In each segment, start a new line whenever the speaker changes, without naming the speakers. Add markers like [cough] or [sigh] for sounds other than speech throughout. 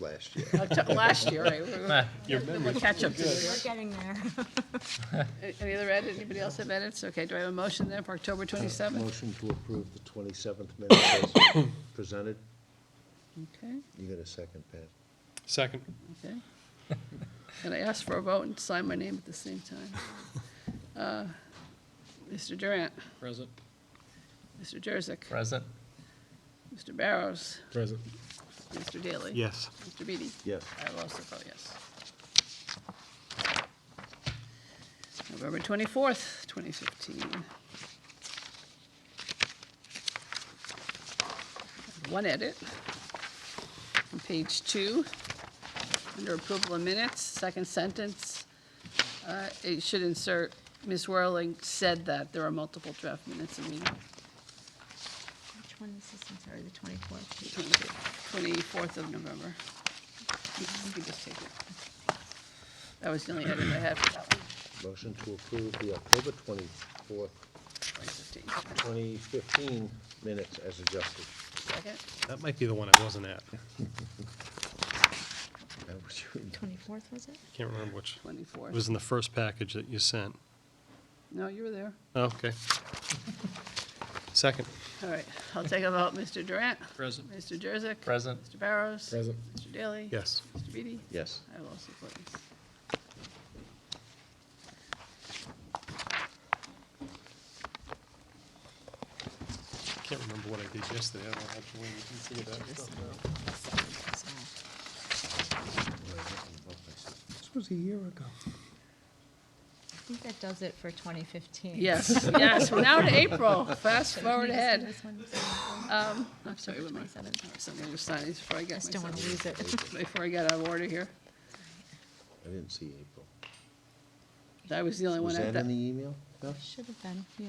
last year.
Octo- Last year,
[laughs]
right?
Your memory.
Catch up.
We're getting there.
Any other edit, anybody else have edits? Okay, do I have a motion then for October 27th?
Motion to approve the 27th minutes as [coughs] presented.
Okay,
You got a second, Pat?
Second. [laughs]
okay. And I ask for a vote and sign my name at the same time. Uh, Mr. Durant,
Present.
Mr. Jurassic,
Present?
Mr. Barrows,
Present.
Mr. Daly.
Yes.
Mr. Beatty?
Yes.
I will also vote yes. November 24th, 2015. One edit. On page two, under approval of minutes, second sentence, uh, it should insert, Ms. Whirling said that there are multiple draft minutes in meeting.
Which one is this? I'm sorry, the twenty-fourth.
24th of November. You can just take it. That was the only edit I had for that one,
Motion to approve the October 24th,
2015.
2015 minutes as adjusted.
Second?
That might be the one I wasn't at.
That was [laughs] you.
Twenty-fourth, was it?
Can't remember which. It
24th.
was in the first package that you sent.
No, you were there.
Oh, Okay. Second.
All right, I'll take a vote. Mr. Durant?
Present.
Mr. Jurassic?
Present?
Mr. Barrows?
Present.
Mr. Daly?
Yes.
Mr. Beatty?
Yes.
I will also vote yes.
Can't remember what I did yesterday. I don't have to wait and see that stuff now.
This was a year ago.
I think that does it for twenty fifteen.
Yes, yes, we're now to April. Fast forward ahead.
I
Um, I'm sorry, what am I?
27th.
All right, So I'm going to sign these before I get
just don't want to
myself,
lose it. [laughs]
before I get out of order here.
I didn't see April.
That was the only one
Was
at
that in the
that.
email? No?
Should have been, yeah.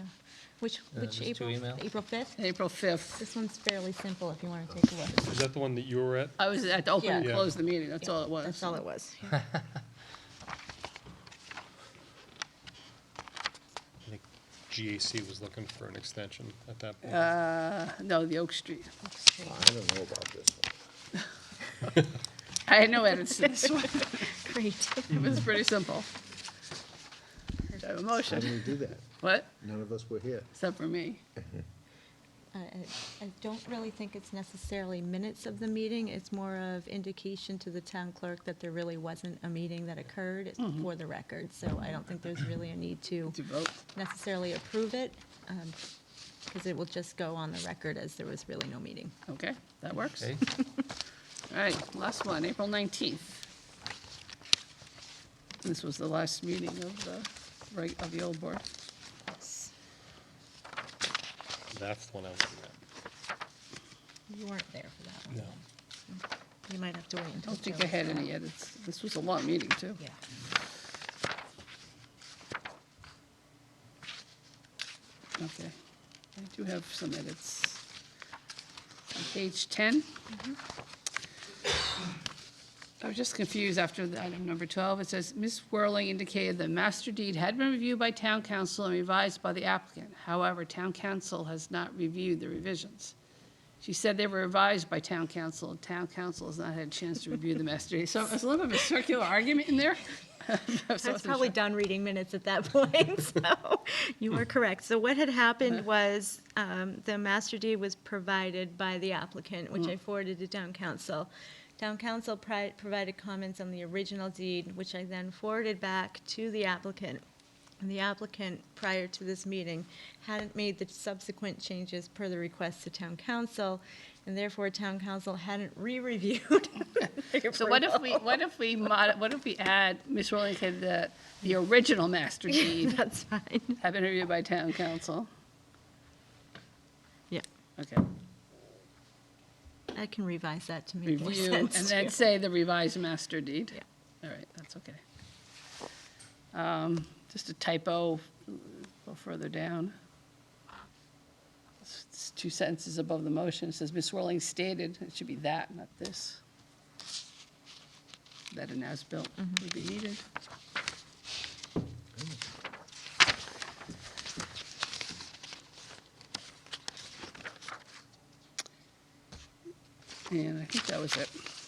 Which,
there's
which
Uh, two
April,
emails.
April fifth?
April 5th.
This one's fairly simple if you want to take a look.
Is that the one that you were at?
I was at the open and
Yeah.
Yeah.
close the meeting, that's all it was.
That's all
[laughs]
it was.
I think GAC was looking for an extension at that point.
Uh, no, the Oak Street.
I don't know about this one.
I had no edits
[laughs]
to this one,
Great. [laughs]
it was pretty simple. Do I have a
How did
motion?
we do that?
What?
None of us were here.
Except for me.
I- I I don't really think it's necessarily minutes of the meeting. It's more of indication to the town clerk that there really wasn't a meeting that occurred. It's
Mm-hmm.
for the record, so I don't think there's really a need to
To vote.
necessarily approve it, because it will just go on the record as there was really no meeting.
Okay, that works.
Okay,
All right, last one, April 19th. This was the last meeting of the, reg- of the old board.
That's the one I was at.
You weren't there for that one.
No.
You might have to wait
I
until.
don't think I had any e edits. This was a long meeting, too.
Yeah.
Okay. I do have some edits. On page 10. I was just confused after the item number 12. It says, "Ms. Whirling indicated the master deed had been reviewed by town council and revised by the applicant. However, town council has not reviewed the revisions." She said they were revised by town council, and town council has not had a chance to review the master deed. So it's a little bit of a circular argument in there. [laughs] So I
I was
wasn't
probably
sure.
done reading minutes at that [laughs]
[laughs]
point, so you are correct. So what had happened was um, the master deed was provided by the applicant, which
Mm.
I forwarded to town council. Town council pri- provided comments on the original deed, which I then forwarded back to the applicant. And the applicant, prior to this meeting, hadn't made the subsequent changes per the request to town council, and therefore town council hadn't re-reviewed. [laughs] the
[laughs] So what if
approval.
we, what if we mod, what if we add, Ms. Rowling said that the original master deed
[laughs] That's fine,
have been reviewed by town council?
yeah.
Okay,
I can revise that to make more
review, and
sense.
then say the revised master deed?
Yeah.
All right, that's okay. Um, just a typo, a little further down. It's- it's Two sentences above the motion, it says Ms. Rowling stated, it should be that, not this. That an as-built would be needed. And I think that was it.